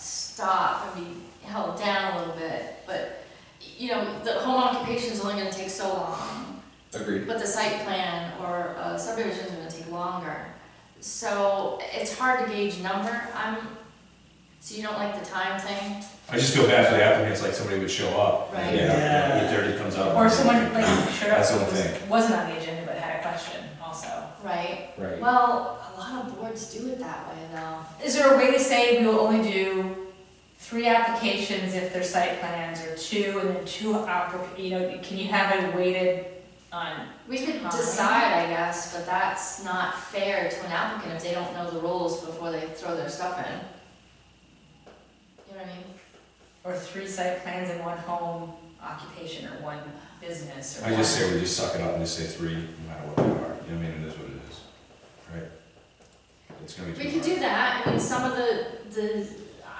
stop and be held down a little bit, but, you know, the home occupation is only gonna take so long, Agreed. but the site plan or uh, subdivision is gonna take longer. So it's hard to gauge number, I'm, so you don't like the time thing? I just feel bad for the applicants, like somebody would show up. Right. Yeah, Yeah. eight thirty comes up. Or someone like showed up That's what I'm who was, thinking. wasn't on the agenda but had a question also. Right, Right. well, a lot of boards do it that way though. Is there a way to say we will only do three applications if they're site plans or two and then two oppor- you know, can you have it weighted on? We could Fine. decide, I guess, but that's not fair to an applicant if they don't know the rules before they throw their stuff in. You know what I mean? Or three site plans and one home occupation or one business or I just one- say we just suck it up and just say three, no matter what they are, you know, what I mean, it is what it is, right? It's gonna be too We could hard. do that, I mean, some of the, the,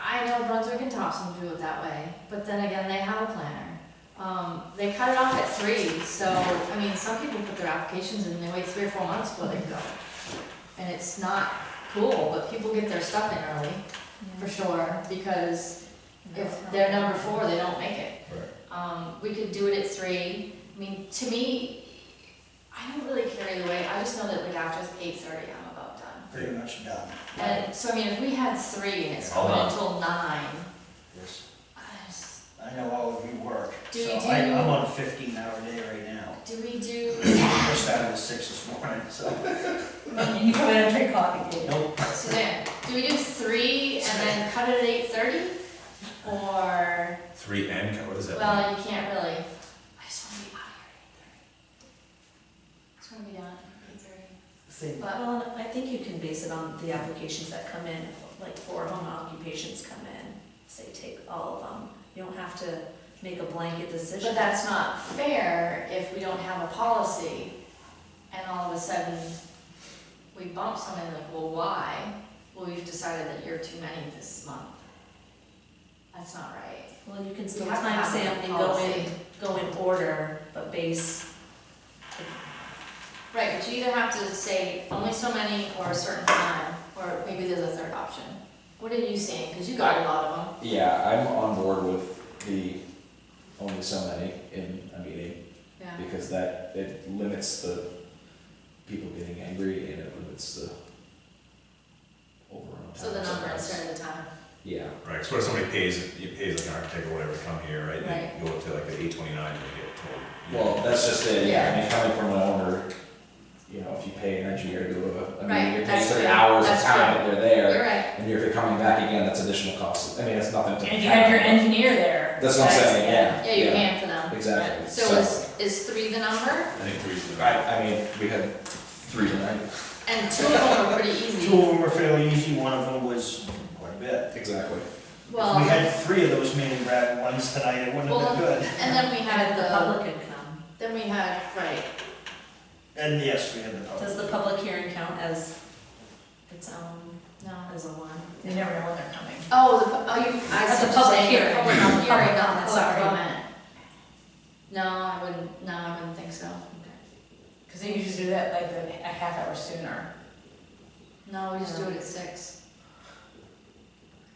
I know Brunswick and Thompson do it that way, but then again, they have a planner. Um, they cut it off at three, so, I mean, some people put their applications in, and they wait three or four months before they go. And it's not cool, but people get their stuff in early, for sure, because if they're number four, they don't make it. Right. Um, we could do it at three. I mean, to me, I don't really carry the weight. I just know that like after eight thirty, I'm about done. Pretty much done. And so I mean, if we had three and it's Hold going on. until nine, uh, Yes. I just, I know all of you work, Do so you I, do- I'm on a fifteen hour day right now. do we do? I started at six this morning, so. And you probably don't drink coffee, do you? Nope. Suzanne, do we do three and then cut it at eight thirty? Or Three and, co- what does that mean? well, you can't really. I just want to be out of here at eight thirty. Just want to be done at eight thirty. Same. But Well, and I think you can base it on the applications that come in, like four home occupations come in, say take all of them. You don't have to make a blanket decision. But that's not fair if we don't have a policy and all of a sudden we bump somebody like, well, why? Well, we've decided that you're too many this month. That's not right. Well, you can We still have to have a timestamp and go in, policy. go in order, but base, Right, but you either have to say only so many or a certain time, or maybe there's a third option. What are you saying? Because you got a lot of them. Yeah, I'm on board with the only so many in a meeting, Yeah. because that, it limits the people getting angry and it limits the overall. So the number instead of the time. Yeah, Right, so what if somebody pays, you pays like an architect or whatever to come here, right? They go up to like the eight twenty-nine and they get told. you know, well, that's just it, Yeah. I mean, coming from an owner, you know, if you pay an engineer to go to, a- I Right, mean, you're paying that's certain true, hours of that's time true. that they're You're there, right. and if you're coming back again, that's additional cost, I mean, it's nothing to. And if you had your count. engineer there. That's what I'm saying, yeah, Yeah, you're paying for them. Exactly, So is, is three the number? I think three's the. I, I mean, we had three tonight. And two of them are pretty easy. Two of them were fairly easy, one of them was quite a bit. Exactly. If we Well, had three of those meeting grab ones tonight, it wouldn't have been good. and then we had and the the, public could come. then we had, right, And yes, we had the Does public. the public hearing count as its own, no. as a one? You never know when they're coming. Oh, the, pu- oh, you, I At see the what you're public saying, hearing. public Public hearing, not the public comment, sorry. comment. No, I wouldn't, no, I wouldn't think so. Because they usually do that like a half hour sooner. No, we just do it at six.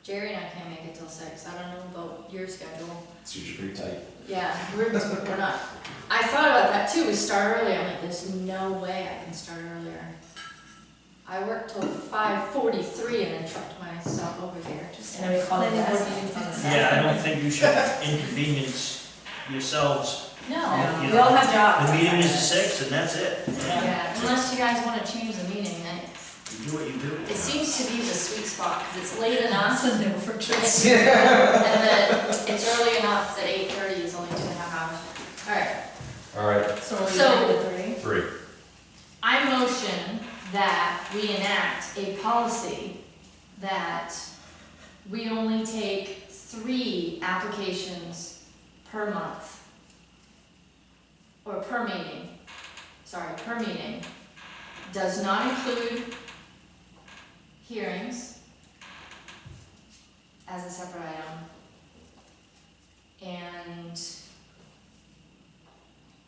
Jerry and I can't make it till six, I don't know about your schedule. It's usually pretty tight. Yeah, we're, we're not, I thought about that too, we start early, I'm like, there's no way I can start earlier. I worked till five forty-three and then trucked myself over here, just. And then we call it Planning board that. meetings on the Saturday. Yeah, I don't think you should inconvenience yourselves. No. You We all know, have jobs. The meeting is at six and that's it. Yeah, unless you guys wanna change the meeting, I- You do what you do. it seems to be the sweet spot, cause it's late enough, That's a no for sure. and then it's early enough that eight thirty is only two and a half hours. Alright, All right, So we're So- doing the three? three. I motion that we enact a policy that we only take three applications per month. Or per meeting, sorry, per meeting, does not include hearings as a separate item. And